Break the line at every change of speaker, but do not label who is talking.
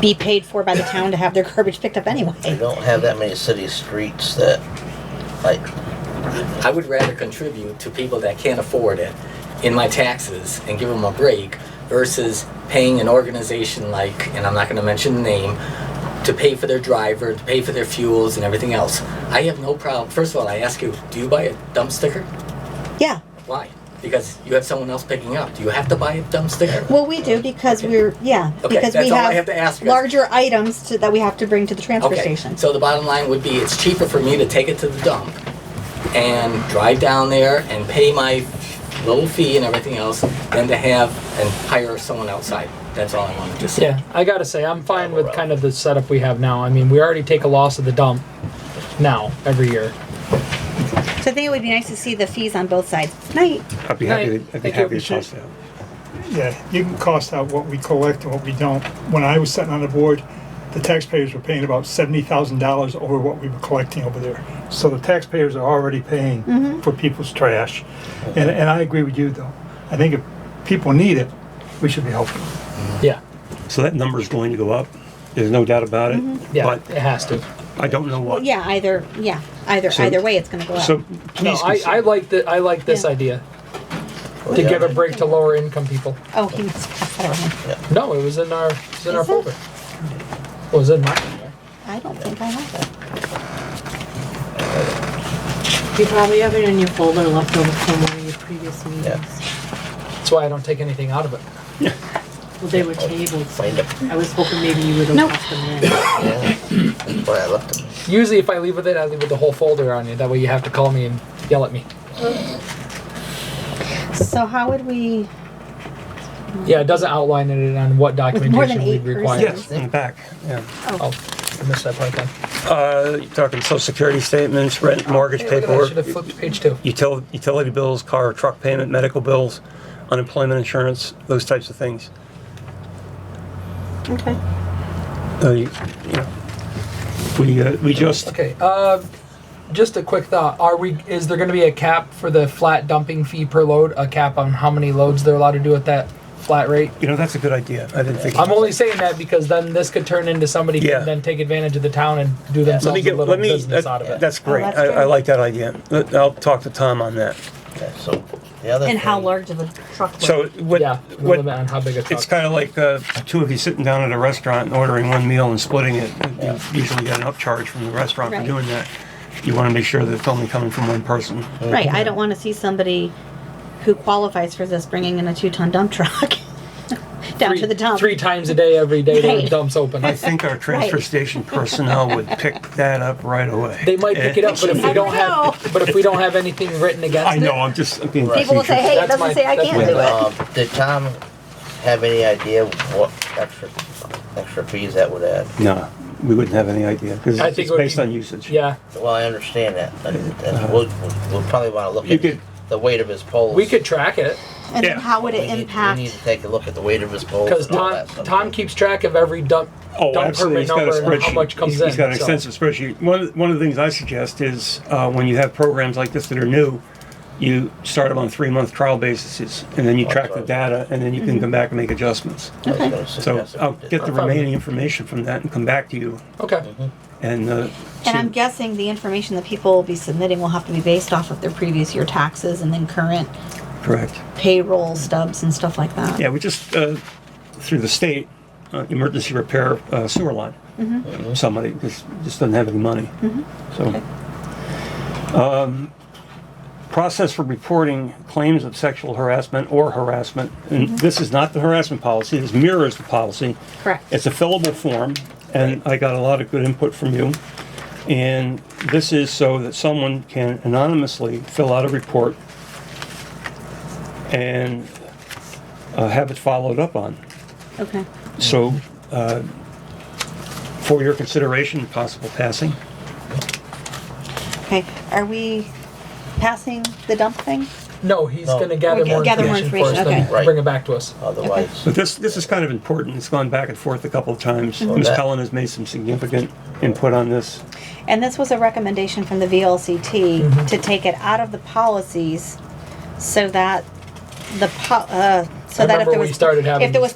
be paid for by the town to have their garbage picked up
We
anyway.
don't have that many city streets that, like,
I would rather contribute to people that can't afford it in my taxes and give them a break versus paying an organization like, and I'm not going to mention the name, to pay for their driver, to pay for their fuels and everything else. I have no problem. First of all, I ask you, do you buy a dump sticker?
Yeah.
Why? Because you have someone else picking up. Do you have to buy a dump sticker?
Well, we do because we're, yeah,
Okay,
because we
that's all I have
have
to ask you.
larger items to- that we have to bring to the transfer
Okay,
station.
so the bottom line would be it's cheaper for me to take it to the dump and drive down there and pay my little fee and everything else than to have and hire someone outside. That's all I wanted to say.
Yeah, I gotta say, I'm fine with kind of the setup we have now. I mean, we already take a loss of the dump now every year.
So I think it would be nice to see the fees on both sides. Night.
I'd be happy,
Right.
to- I'd be
Thank
happy
you.
to toss that.
Yeah, you can cost out what we collect and what we don't. When I was sitting on the board, the taxpayers were paying about seventy thousand dollars over what we were collecting over there. So the taxpayers are already paying for people's trash. And, and I agree with you though. I think if people need it, we should be helping them.
Yeah,
So that number's going to go up, there's no doubt about it,
Mm-hmm. yeah,
but
it has to.
I don't know
Well,
what.
yeah, either, yeah, either,
So-
either way, it's gonna go up.
So
No,
please
I, I
consider,
like the I like this
Yeah.
idea
well,
to
yeah,
give a break to lower income people.
Oh, he must pass that around.
No, it was in our it's in our
Is it?
folder. Well, it was in my folder.
I don't think I have it.
You probably have it in your folder left over from one of your previous meetings.
That's why I don't take anything out of it.
Well, they were tabled, so
Find it,
I was hoping maybe you would
Nope.
have left them in.
that's why I left it.
Usually, if I leave with it, I leave with the whole folder on you. That way, you have to call me and yell at me.
So how would we,
Yeah, it doesn't outline it on what
Mm. more than
documentation we
eight
require.
yes, in the back, yeah.
Oh, I missed that part then.
Uh, you're talking social security statements, rent, mortgage
Oh, Hey, look at that, I should have
paperwork,
flipped to page two.
utility, utility bills, car, or truck payment, medical bills, unemployment insurance, those types of things.
okay,
Uh, you- you know, We, uh, we just,
Okay, uh, just a quick thought. Are we, is there gonna be a cap for the flat dumping fee per load? A cap on how many loads they're allowed to do at that flat rate?
you know, that's a good idea, I didn't think.
I'm only saying that because then this could turn into somebody
Yeah.
can then take advantage of the town and do
Let
themselves
me
a
get,
little
let me,
business out of
that-
it.
that's great,
Oh, that's
I, I
good.
like that idea, Let- I'll talk to Tom on that.
Okay, so the other
and how
thing-
large of a truck would?
So what,
Yeah, the
what,
limit on how big a
It's
truck.
kind of like uh, two of you sitting down at a restaurant and ordering one meal and splitting it. You usually get an upcharge from the restaurant
Right.
for doing that. You want to make sure that it's only coming from one person.
Right, I don't wanna see somebody who qualifies for this bringing in a two-ton dump truck down to the dump.
Three times a day, every day, the
Right.
dump's open.
I think our transfer
Right.
station personnel would pick that up right away. Eh,
They might pick it up, but if we
never
don't
know.
have, but if we don't have anything written
I
against
know.
it,
I'm just I'm being
People
People will say, hey, it
That's my-
doesn't say I
that's
can't
my-
do it.
Um, did Tom have any idea what extra, extra fees that would add?
No, we wouldn't have any idea because
I
it's
think it
it's
would
based
be-
on usage.
yeah.
Well, I understand that, but that's- we'll, we'll probably wanna look
Uh-huh. You could-
at the weight of his poles.
We could track it.
And then
Yeah.
how would
We
it
need- We need
impact?
to take a look at the weight of his poles
Because
and all
Tom,
that stuff.
Tom keeps track of every dump,
Oh,
dump
absolutely.
permit number
He's got a spreadsheet.
and how much comes
He's-
in.
He's got an
so-
extensive spreadsheet. One, of the- one of the things I suggest is uh, when you have programs like this that are new, you start them on three month trial bases and
Oh,
then you track the data and then you
Mm-hmm.
can come back and make adjustments.
I was gonna
So
suggest that we
I'll
did
get the
that.
remaining information from that and come back to you
Okay.
and. uh,
And I'm
see-
guessing the information that people will be submitting will have to be based off of their previous year taxes and then current
Correct.
payroll stubs and stuff like that.
Yeah, we just, uh, through the state, uh, emergency repair uh, sewer line. Somebody just, just doesn't have any money. So. Um, Process for reporting claims of sexual harassment or harassment. And this is not the harassment policy, this mirrors the policy.
Correct.
It's a fillable form, and I got a lot of good input from you. And this is so that someone can anonymously fill out a report and uh, have it followed up on.
Okay.
So, uh, for your consideration, and possible passing.
Okay. Are we passing the dump thing?
No, he's
No.
going to gather
Okay,
more
gather more
information for us,
information,
then
okay.
Right.
bring it back to us.
Otherwise,
But this, this is kind of important. It's gone back and forth a couple of times.
Well,
Ms.
that-
Pellin has made some significant input on this.
And this was a recommendation from the VLCT
Mm-hmm.
to take it out of the policies so that uh, the po- uh, so
I
that if
remember
there
we
was
started having
if there was